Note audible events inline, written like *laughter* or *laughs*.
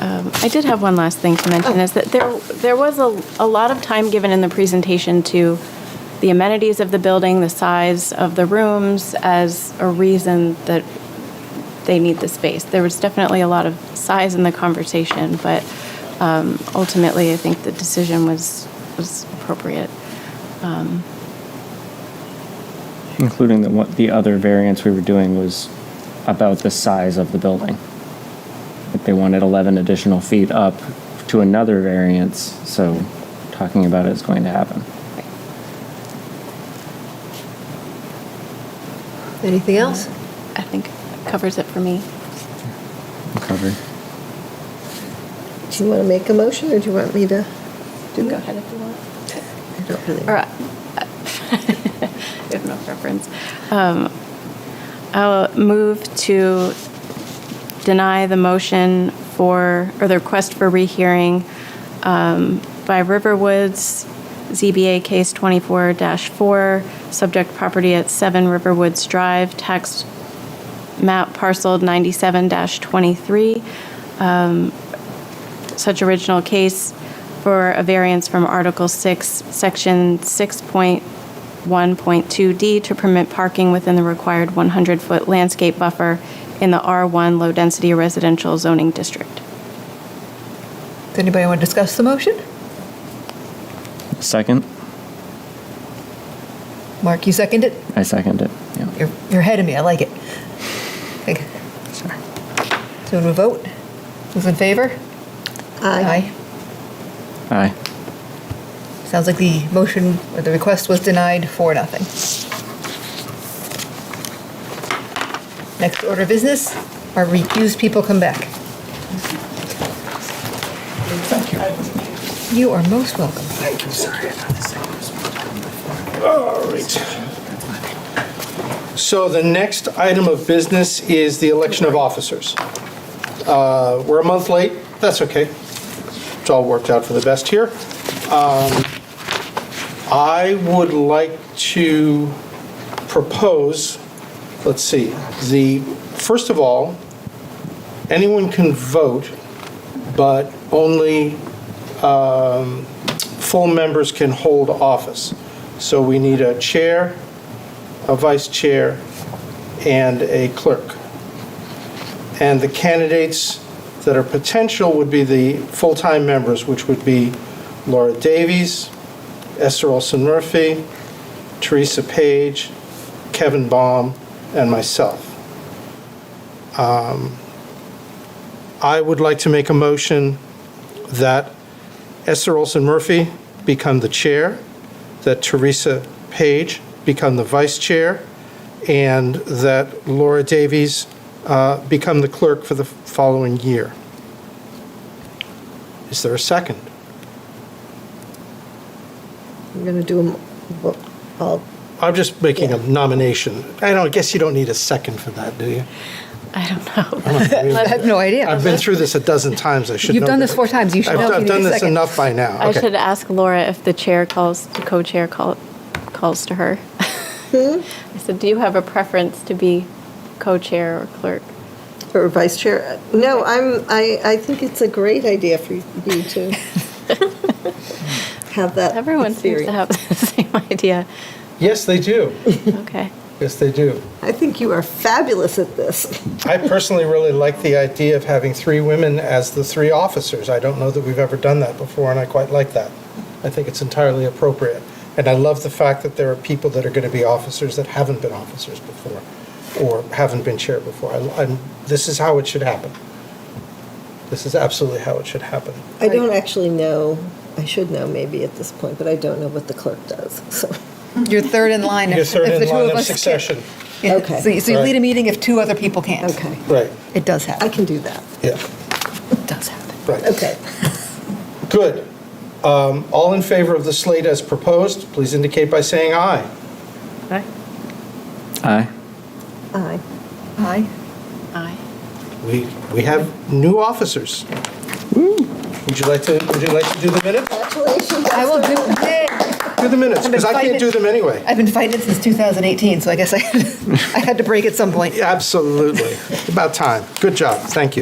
Um, I did have one last thing to mention, is that there, there was a, a lot of time given in the presentation to the amenities of the building, the size of the rooms as a reason that they need the space. There was definitely a lot of size in the conversation, but um, ultimately, I think the decision was, was appropriate. Including that what the other variance we were doing was about the size of the building. Like they wanted 11 additional feet up to another variance, so talking about it is going to happen. Anything else? I think covers it for me. Covered. Do you want to make a motion, or do you want me to? Go ahead if you want. I don't really- Or, uh, *laughs* I have no preference. Um, I'll move to deny the motion for, or the request for rehearing um, by Riverwoods, ZBA case 24-4, subject property at 7 Riverwoods Drive, tax map parcel 97-23, such original case for a variance from Article 6, Section 6.1.2D to permit parking within the required 100-foot landscape buffer in the R1 Low Density Residential Zoning District. Does anybody want to discuss the motion? Second? Mark, you second it? I second it. Yeah. You're you're ahead of me, I like it. Okay, Sorry. So we vote? Who's in favor? Aye. Aye. Sounds like the motion, or the request was denied for nothing. Next order of business, our recused people come back. Thank you. You are most welcome. All right. So the next item of business is the election of officers. Uh, We're a month late, that's okay. It's all worked out for the best here. Um, I would like to propose, let's see, the, first of all, anyone can vote, but only full members can hold office. So we need a chair, a vice chair, and a clerk. And the candidates that are potential would be the full-time members, which would be Laura Davies, Esther Olson Murphy, Teresa Page, Kevin Baum, and myself. Um, I would like to make a motion that Esther Olson Murphy become the chair, that Teresa Page become the vice chair, and that Laura Davies uh, become the clerk for the following year. Is there a second? I'm going to do them, well, I'll- I'm just making a Yeah. nomination. I don't, I guess you don't need a second for *laughs* that, do you? I don't I know. don't I really- have no idea. I've been through this a dozen times, I should know. You've done that. this four times, you should I've know if I've you done need a this second. enough by now. I Okay. should ask Laura if the chair calls, the co-chair call, calls to her. I said, do you have a preference to be co-chair or clerk? Or vice chair? No, I'm, I, I think it's a great idea for you to have that Everyone seems theory. to have the *laughs* same idea. Yes, they *laughs* do. Okay. Yes, they do. I think you are fabulous at this. I personally really like the idea of having three women as the three officers. I don't know that we've ever done that before, and I quite like that. I think it's entirely appropriate. And I love the fact that there are people that are going to be officers that haven't been officers before or haven't been chair before. I, I'm, this is how it should happen. This is absolutely how it should happen. I don't actually know, I should know maybe at this point, but I don't know what the clerk does, so. You're third in line. if- Your third if the in two line of of us can't- succession. Yeah, Okay. So you so you Right. lead a meeting if two other people can't. Okay, Right. It does I happen. can do that. Yeah. It does happen. Right. Okay. Good. Um, all in favor of the slate as proposed, please indicate by saying aye. Aye. Aye. Aye. Aye. We, we have new officers. Would you like to, would you like to do the minutes? Congratulations. I will do it. Do the minutes, I've been because I can't fighting- do them anyway. I've been fighting it since 2018, so *laughs* I guess I, I had to break at some point. Absolutely. About time. Good job. Thank you.